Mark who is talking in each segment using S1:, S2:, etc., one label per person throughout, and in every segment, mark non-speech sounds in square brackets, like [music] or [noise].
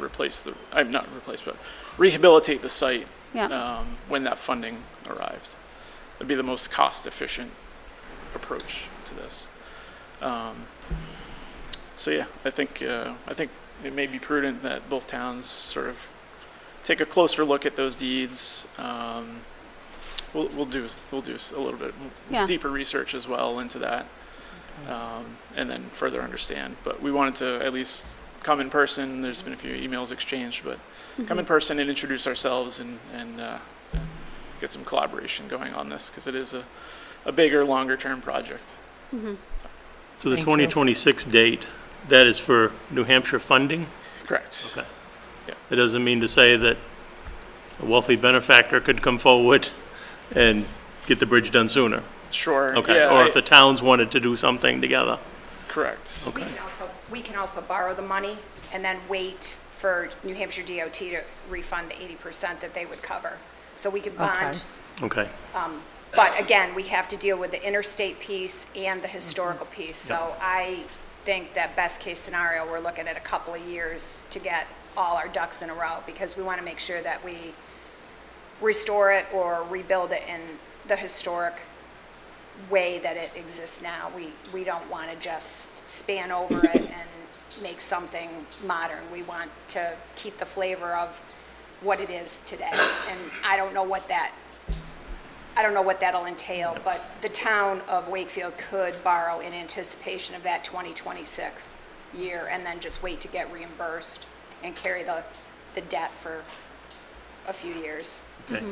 S1: replace the, I'm not replace, but rehabilitate the site
S2: Yeah,
S1: um, when that funding arrives. That'd be the most cost-efficient approach to this. Um, So yeah, I think, uh, I think it may be prudent that both towns sort of take a closer look at those deeds. Um, We'll, we'll do, s- we'll do s- a little bit m-
S2: Yeah.
S1: deeper research as well into that, um, and then further understand. But we wanted to at least come in person, there's been a few emails exchanged, but come in person and introduce ourselves and, and uh, get some collaboration going on this, because it is a, a bigger, longer-term project.
S3: So the
S4: Thank you.
S3: 2026 date, that is for New Hampshire funding?
S1: Correct.
S3: Okay. It doesn't mean to say that a wealthy benefactor could come forward and get the bridge done sooner?
S1: Sure.
S3: Okay,
S1: yeah,
S3: or
S1: I-
S3: if the towns wanted to do something together?
S1: Correct.
S3: Okay.
S5: We can also, we can also borrow the money and then wait for New Hampshire DOT to refund the 80% that they would cover. So we could bond,
S3: Okay,
S5: but again, we have to deal with the interstate piece and the historical piece. So I think that best-case scenario, we're looking at a couple of years to get all our ducks in a row because we want to make sure that we restore it or rebuild it in the historic way that it exists now. We, we don't want to just span over it and make something modern. We want to keep the flavor of what it is today. And I don't know what that, I don't know what that'll entail, but the town of Wakefield could borrow in anticipation of that 2026 year and then just wait to get reimbursed and carry the, the debt for a few years.
S3: okay.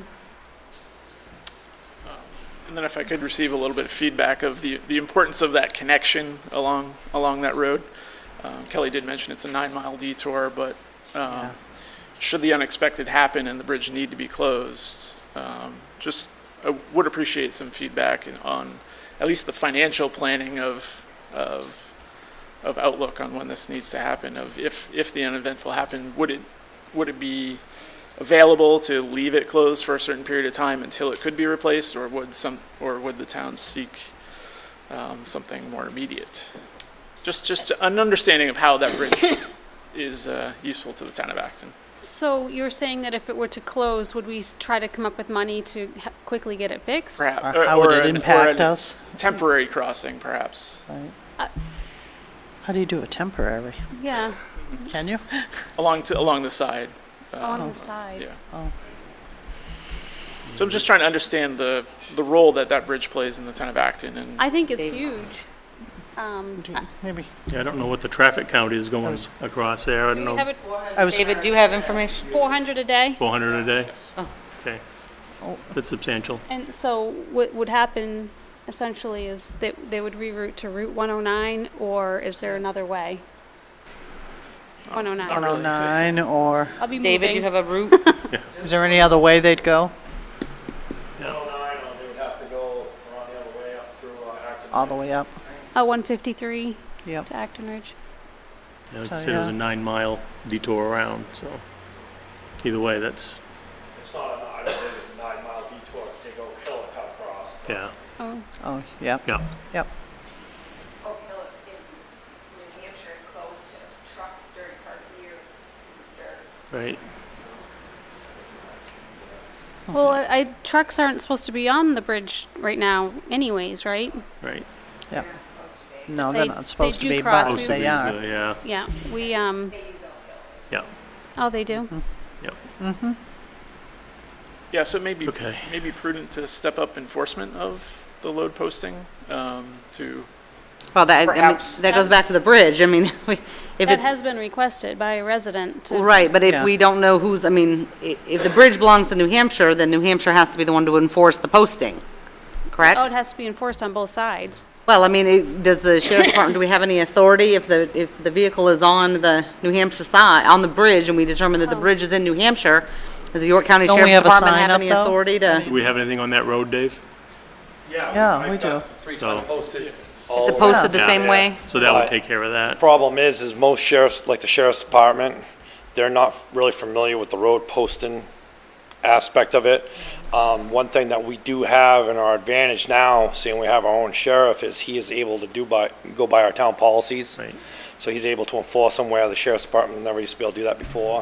S1: And then if I could receive a little bit of feedback of the, the importance of that connection along, along that road. Um, Kelly did mention it's a nine-mile detour, but um, should the unexpected happen and the bridge need to be closed, um, just, I would appreciate some feedback and on at least the financial planning of, of, of outlook on when this needs to happen, of if, if the uneventful happened, would it, would it be available to leave it closed for a certain period of time until it could be replaced, or would some, or would the town seek um, something more immediate? Just, just an understanding of how that bridge is uh, useful to the town of Acton.
S2: so you're saying that if it were to close, would we s- try to come up with money to ha- quickly get it fixed?
S1: Perhaps,
S4: Or how would
S1: or
S4: it
S1: an- or
S4: impact
S1: an
S4: us?
S1: Temporary crossing, perhaps,
S4: How do you do a temporary?
S2: Yeah,
S4: Can you?
S1: along to, along the side,
S2: on the side.
S1: yeah. So I'm just trying to understand the, the role that that bridge plays in the town of Acton and.
S2: I think it's huge. Um,
S4: Do- Maybe.
S3: Yeah, I don't know what the traffic count is going
S4: was-
S3: across there, I don't
S2: do we have
S3: know,
S2: it
S4: I was,
S6: David, do you have information?
S2: 400 a day?
S3: 400 a day?
S1: Yes.
S4: Oh.
S3: Okay, that's substantial.
S2: And so what would happen essentially is that they would reroute to Route 109, or is there another way? 109.
S1: really.
S4: 109 or,
S2: I'll be
S6: David, do you
S2: moving.
S6: have a route?
S4: is there any other way they'd go?
S7: they would have to go around the other way up through uh, Acton.
S4: All the way up?
S2: Uh, 153
S4: Yep.
S2: to Acton Ridge.
S3: Yeah, I'd
S4: So,
S3: say it was
S4: yeah.
S3: a nine-mile detour around, so either way, that's,
S7: It's not, a- I don't think it's a nine mile detour if they go Killicock across.
S3: yeah,
S4: Oh, yep,
S3: yeah.
S4: yep.
S5: Oak Hill in New Hampshire is closed to trucks during part of the year, it's, it's dirt.
S3: Right,
S2: Well, I, I, trucks aren't supposed to be on the bridge right now anyways, right?
S3: right.
S4: No, they're
S2: They-
S4: not supposed
S2: they
S4: to
S2: do
S4: be,
S2: cross
S4: but
S2: we-
S4: Oh, they
S3: Supposed to
S4: are.
S3: be, Yeah,
S2: Yeah, we, um,
S3: yeah,
S2: oh, they do?
S3: yeah.
S1: Yeah, so it may be,
S3: Okay.
S1: may be prudent to step up enforcement of the load posting um, to,
S6: [laughs] Well, that, I mean,
S1: Perhaps.
S6: that goes back to the bridge. I mean, [laughs] we- if
S2: That
S6: it's,
S2: has been requested by a resident. to-
S6: right, but if
S4: Yeah.
S6: we don't know who's, I mean, i- if the bridge belongs to New Hampshire, then New Hampshire has to be the one to enforce the posting,
S2: Oh, it
S6: correct?
S2: has to be enforced on both sides.
S6: Well, I mean, it- does the sheriff's department, do we have any authority if the, if the vehicle is on the New Hampshire side, on the bridge, and we determine that the
S2: Oh.
S6: bridge is in New Hampshire? Does the York County
S4: Don't we
S6: Sheriff's
S4: have a
S6: Department
S4: sign
S6: have
S4: up,
S6: any
S4: though?
S6: authority to?
S3: Do we have anything on that road, Dave?
S4: Yeah, we
S7: I've got
S4: do.
S7: Three
S3: So-
S7: times posted.
S6: Is it posted the same way?
S3: So that
S4: Uh,
S3: would
S7: Right.
S3: take care of that.
S7: Problem is, is most sheriffs, like the sheriff's department, they're not really familiar with the road posting aspect of it. Um, one thing that we do have in our advantage now, seeing we have our own sheriff, is he is able to do by, go by our town policies.
S3: Right.
S7: So he's able to enforce them where the sheriff's department never used to be able to do that before.